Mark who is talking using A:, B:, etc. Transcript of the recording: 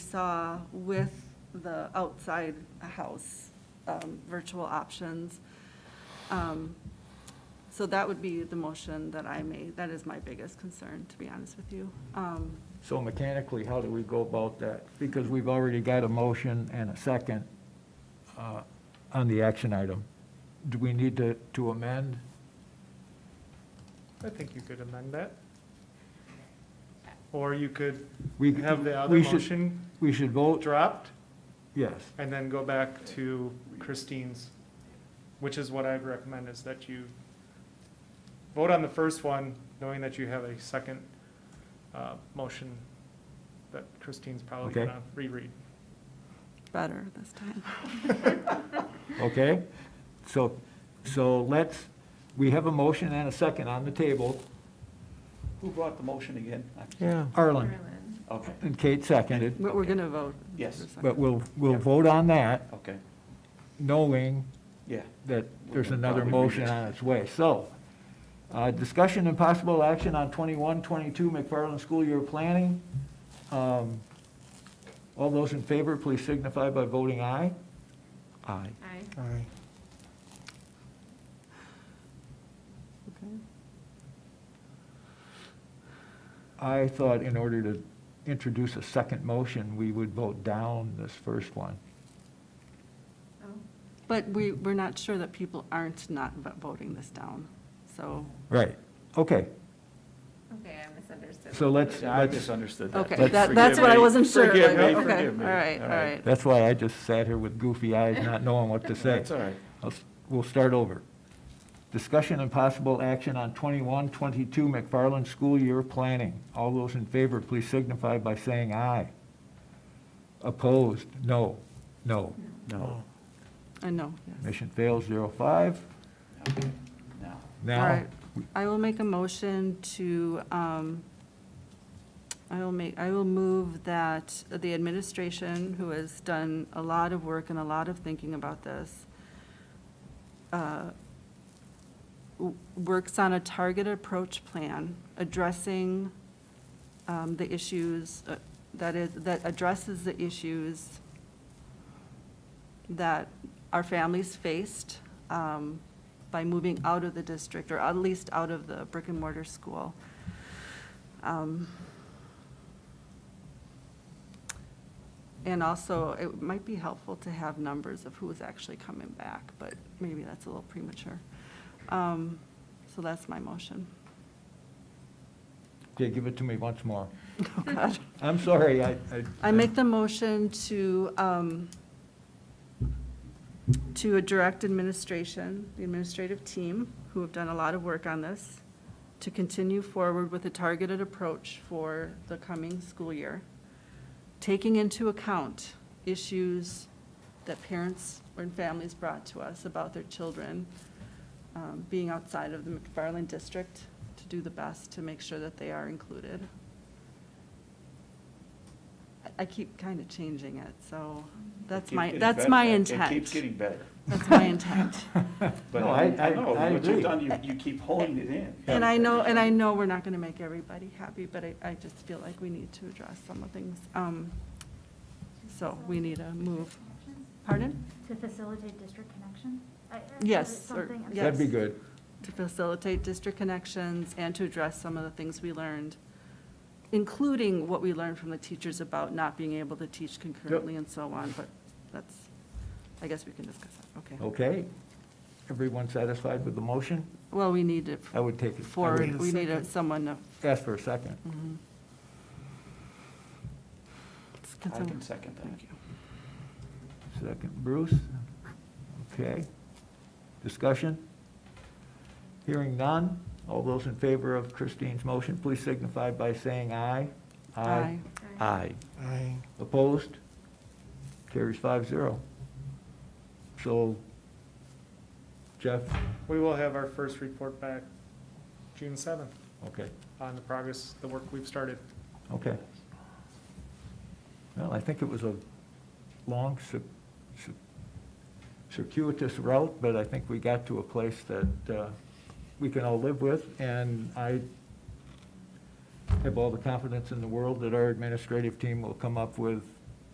A: saw with the outside house um, virtual options. Um, So that would be the motion that I made. That is my biggest concern, to be honest with you. Um,
B: So mechanically, how do we go about that? Because we've already got a motion and a second uh, on the action item. Do we need to, to amend?
C: I think you could amend that. Or you could
B: We
C: have the other
B: we should-
C: motion
B: We should vote,
C: dropped
B: yes.
C: and then go back to Christine's, which is what I'd recommend is that you vote on the first one, knowing that you have a second uh, motion that Christine's probably
B: Okay.
C: going to reread.
A: Better this time.
B: Okay? So, so let's, we have a motion and a second on the table.
D: Who brought the motion again? I-
B: Yeah. Arlen
D: Okay,
B: and Kate seconded,
A: But we're going to vote.
D: Yes.
B: but we'll, we'll vote on that
D: okay,
B: knowing
D: yeah.
B: that there's
D: We'll
B: another
D: probably read
B: motion
D: it.
B: on its way. So, uh, discussion and possible action on 21, 22 McFarland School Year Planning. Um, All those in favor, please signify by voting aye.
D: Aye.
E: Aye.
A: Okay.
B: I thought in order to introduce a second motion, we would vote down this first one.
E: Oh.
A: But we, we're not sure that people aren't not vo- voting this down, so.
B: Right. Okay,
E: Okay, I misunderstood.
B: so let's,
D: I
B: let's,
D: misunderstood that.
A: Okay,
B: Let's-
A: that, that's what I
D: Forgive me,
A: wasn't sure.
D: Forgive
A: like,
D: me,
A: okay,
D: forgive me.
A: All right, all right.
B: that's why I just sat here with goofy eyes, not knowing what to say.
D: That's all right.
B: I'll s- We'll start over. Discussion and possible action on 21, 22 McFarland School Year Planning. All those in favor, please signify by saying aye. Opposed, no, no.
D: No.
A: I know, yes.
B: Mission fails, zero five.
D: Okay, Now,
A: All
B: Now,
A: right. I will make a motion to, um, I will make, I will move that the administration, who has done a lot of work and a lot of thinking about this, uh, w- works on a targeted approach plan addressing um, the issues, uh, that is, that addresses the issues that our families faced um, by moving out of the district, or at least out of the brick and mortar school. Um, And also, it might be helpful to have numbers of who's actually coming back, but maybe that's a little premature. Um, So that's my motion.
B: okay, give it to me once more.
A: Oh, God.
B: I'm sorry, I.
A: I make the motion to, um, to direct administration, the administrative team, who have done a lot of work on this, to continue forward with a targeted approach for the coming school year, taking into account issues that parents and families brought to us about their children um, being outside of the McFarland district, to do the best to make sure that they are included. I- I keep kind of changing it, so that's
D: keep
A: my,
D: getting
A: that's
D: better.
A: my
D: It
A: intent.
D: keeps getting better.
A: That's my intent.
D: But
B: No, I-
D: I
B: I-
D: know,
B: I
D: what
B: agree.
D: you've done, you, you keep honing it in.
A: And I know, and I know we're not going to make everybody happy, but I, I just feel like we need to address some of things. Um, So we need a move. Pardon?
F: To facilitate district connection? I- I- is
A: Yes,
F: it
A: or-
F: something- I'm
B: That'd be
A: yes.
B: good.
A: To facilitate district connections and to address some of the things we learned, including what we learned from the teachers about not being able to teach concurrently and so on, but that's, I guess we can discuss that, okay.
B: Okay. Everyone satisfied with the motion?
A: Well, we need it
B: I would take it. I
A: for,
B: would
A: we need a- someone to,
B: Ask for a second.
A: mhm.
D: I
A: Can
D: can
A: someone-
D: second
A: Thank you.
B: Second, Bruce. Okay. Discussion? Hearing none. All those in favor of Christine's motion, please signify by saying aye.
A: Aye.
D: that. Aye.
C: Aye.
B: Opposed? Carries five zero. So, Jeff,
C: We will have our first report back June 7th
B: okay,
C: on the progress, the work we've started.
B: okay. Well, I think it was a long, cir- cir- circuitous route, but I think we got to a place that uh, we can all live with, and I have all the confidence in the world that our administrative team will come up with